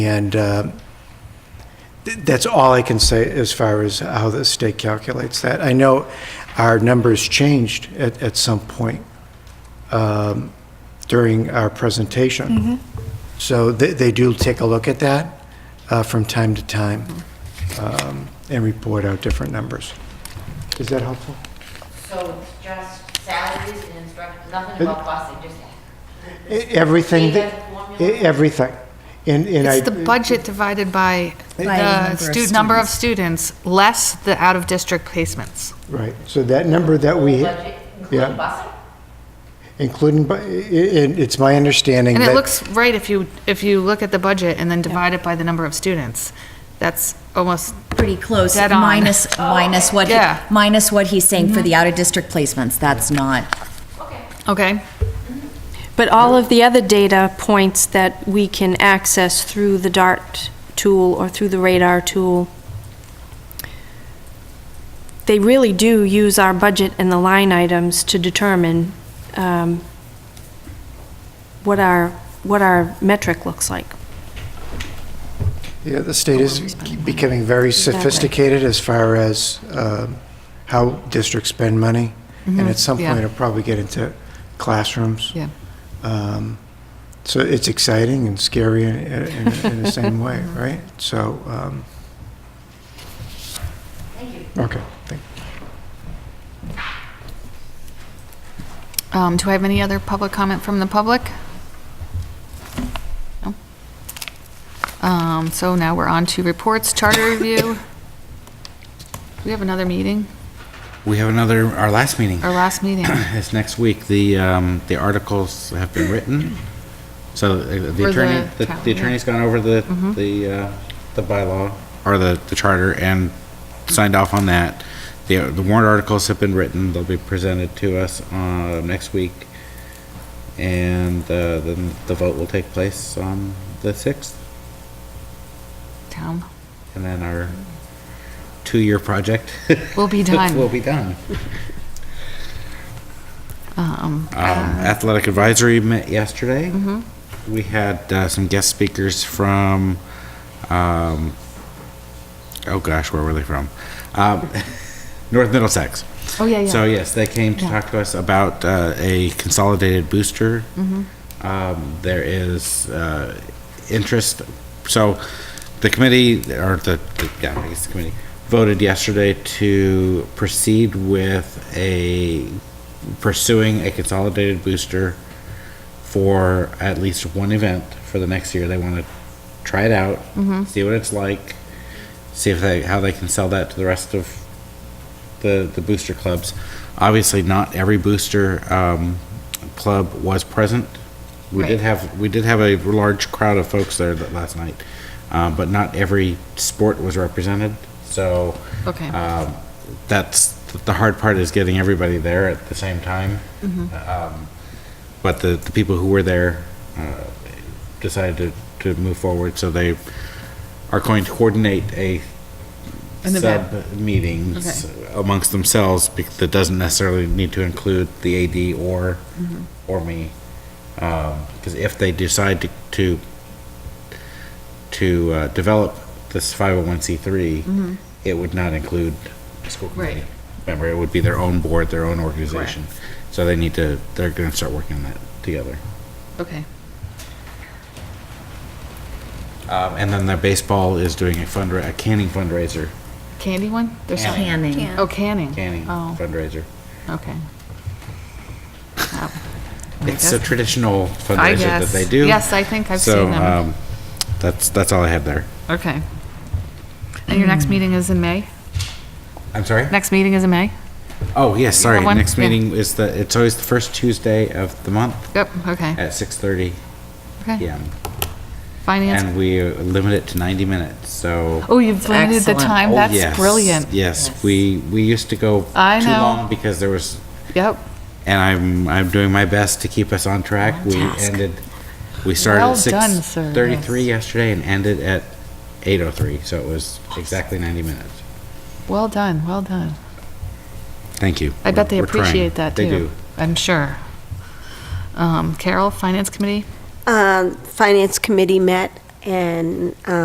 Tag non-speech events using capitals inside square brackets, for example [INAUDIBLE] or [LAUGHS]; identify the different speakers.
Speaker 1: And uh, th- that's all I can say as far as how the state calculates that. I know our numbers changed at, at some point um, during our presentation.
Speaker 2: Mm-hmm.
Speaker 1: So they, they do take a look at that uh, from time to time um, and report out different numbers. Is that helpful?
Speaker 3: So it's just salaries and instruct, nothing about busing, just
Speaker 1: E- Everything, that- e-
Speaker 3: formula?
Speaker 1: everything. And, and I.
Speaker 2: It's the budget divided by
Speaker 4: By number
Speaker 2: the
Speaker 4: of
Speaker 2: stu- number of students, less the out-of-district placements.
Speaker 1: Right, so that number that we.
Speaker 3: budget,
Speaker 1: Yeah. Including,
Speaker 3: including busing?
Speaker 1: bu- i- i- it's my understanding
Speaker 2: And
Speaker 1: that.
Speaker 2: it looks right if you, if you look at the budget and then divide it by the number of students. That's almost,
Speaker 4: pretty close,
Speaker 2: Dead on. [LAUGHS] Oh.
Speaker 4: minus, minus what, he-
Speaker 2: Yeah. Mm-hmm.
Speaker 4: minus what he's saying for the out-of-district placements, that's not.
Speaker 2: okay?
Speaker 5: But all of the other data points that we can access through the DART tool or through the radar tool, they really do use our budget and the line items to determine um, what our, what our metric looks like.
Speaker 1: Yeah, the state is becoming very sophisticated as far as um, how districts spend money. And at some
Speaker 2: Mm-hmm. yeah.
Speaker 1: point, it'll probably get into classrooms.
Speaker 2: Yeah.
Speaker 1: Um, So it's exciting and scary in, in in the same
Speaker 2: [LAUGHS]
Speaker 1: way,
Speaker 2: Mm-hmm.
Speaker 1: right? So. Thank you. Okay, thank
Speaker 2: Um, do I have any other public comment from the public? No. Um, so now we're on to reports, charter review. We have another meeting,
Speaker 6: We have another, our last meeting
Speaker 2: our last meeting. [COUGHS]
Speaker 6: [LAUGHS] is next week. The, um, the articles have been written. So uh, the
Speaker 2: For
Speaker 6: attorney,
Speaker 2: the
Speaker 6: the
Speaker 2: town, yeah.
Speaker 6: the
Speaker 2: Mm-hmm.
Speaker 6: attorney's gone over the, the, uh, the bylaw or the, the charter and signed off on that. The, the warrant articles have been written. They'll be presented to us, uh, next week. And, uh, then the vote will take place on the sixth.
Speaker 2: Town
Speaker 6: And then our two-year project
Speaker 2: will be
Speaker 6: [LAUGHS] will
Speaker 2: done.
Speaker 6: be done.
Speaker 2: Um,
Speaker 6: Um, Athletic Advisory met yesterday. We had uh, some guest speakers from, um, oh gosh, where were they from? Um, [LAUGHS] North Middlesex.
Speaker 2: oh, yeah, yeah.
Speaker 6: So yes, they came to
Speaker 2: Yeah.
Speaker 6: talk to us about uh, a consolidated booster.
Speaker 2: Mm-hmm.
Speaker 6: Um, There is uh, interest, so the committee, or the, the- yeah, I guess the committee, voted yesterday to proceed with a, pursuing a consolidated booster for at least one event for the next year. They want to try it out, see what it's like, see if they, how they can sell that to the rest of the, the booster clubs. Obviously, not every booster um, club was present. We did
Speaker 2: Right.
Speaker 6: have we did have a large crowd of folks there that last night, uh, but not every sport was represented. So
Speaker 2: Okay.
Speaker 6: um, that's the hard part is getting everybody there at the same time.
Speaker 2: Mm-hmm.
Speaker 6: Um, but the, the people who were there uh, decided to, to move forward, so they are going to coordinate a
Speaker 2: An event.
Speaker 6: sub meetings amongst themselves bec- that doesn't necessarily need to include the AD or
Speaker 2: Mm-hmm.
Speaker 6: or me. Because if they decide to to, to uh, develop this 501c3, it would not include a school
Speaker 2: Mm-hmm.
Speaker 6: committee
Speaker 2: Right.
Speaker 6: member. It would be their own board, their own organization. So they need to, they're going to start working on that together.
Speaker 2: Okay.
Speaker 6: Um, and then the baseball is doing a fundra, a canning fundraiser,
Speaker 2: Candy one? There's something.
Speaker 4: Canning.
Speaker 2: Oh, canning.
Speaker 6: canning
Speaker 2: Oh,
Speaker 6: fundraiser.
Speaker 2: okay.
Speaker 6: It's a
Speaker 2: guess-
Speaker 6: traditional fundraiser that
Speaker 2: guess.
Speaker 6: they do.
Speaker 2: Yes, I think I've
Speaker 6: So,
Speaker 2: seen them.
Speaker 6: um, That's, that's all I have there.
Speaker 2: Okay. And your
Speaker 4: Mm.
Speaker 2: next meeting is in May?
Speaker 6: I'm sorry?
Speaker 2: Next meeting is in May?
Speaker 6: Oh, yes, sorry.
Speaker 2: have one?
Speaker 6: Next
Speaker 2: Yeah.
Speaker 6: meeting is the, it's always the first Tuesday of the month
Speaker 2: Yep, okay.
Speaker 6: at 6:30
Speaker 2: Okay.
Speaker 6: PM.
Speaker 2: Finance.
Speaker 6: And we limit it to 90 minutes, so.
Speaker 2: Oh, you've limited the
Speaker 4: Excellent.
Speaker 2: time?
Speaker 6: Oh,
Speaker 2: That's
Speaker 6: yes,
Speaker 2: brilliant.
Speaker 6: Yes, we, we used to go
Speaker 2: I
Speaker 6: too
Speaker 2: know.
Speaker 6: long because there was,
Speaker 2: Yep.
Speaker 6: and I'm, I'm doing my best to keep us on track. We ended, we started
Speaker 2: Well
Speaker 6: at
Speaker 2: done, sir.
Speaker 6: 6:33 yesterday and ended at 8:03, so it was exactly 90 minutes.
Speaker 2: Well done, well done.
Speaker 6: Thank you.
Speaker 2: I bet they
Speaker 6: We're trying.
Speaker 2: appreciate that too.
Speaker 6: They do.
Speaker 2: I'm sure. Um, Carol, Finance Committee?
Speaker 7: Um, Finance Committee met and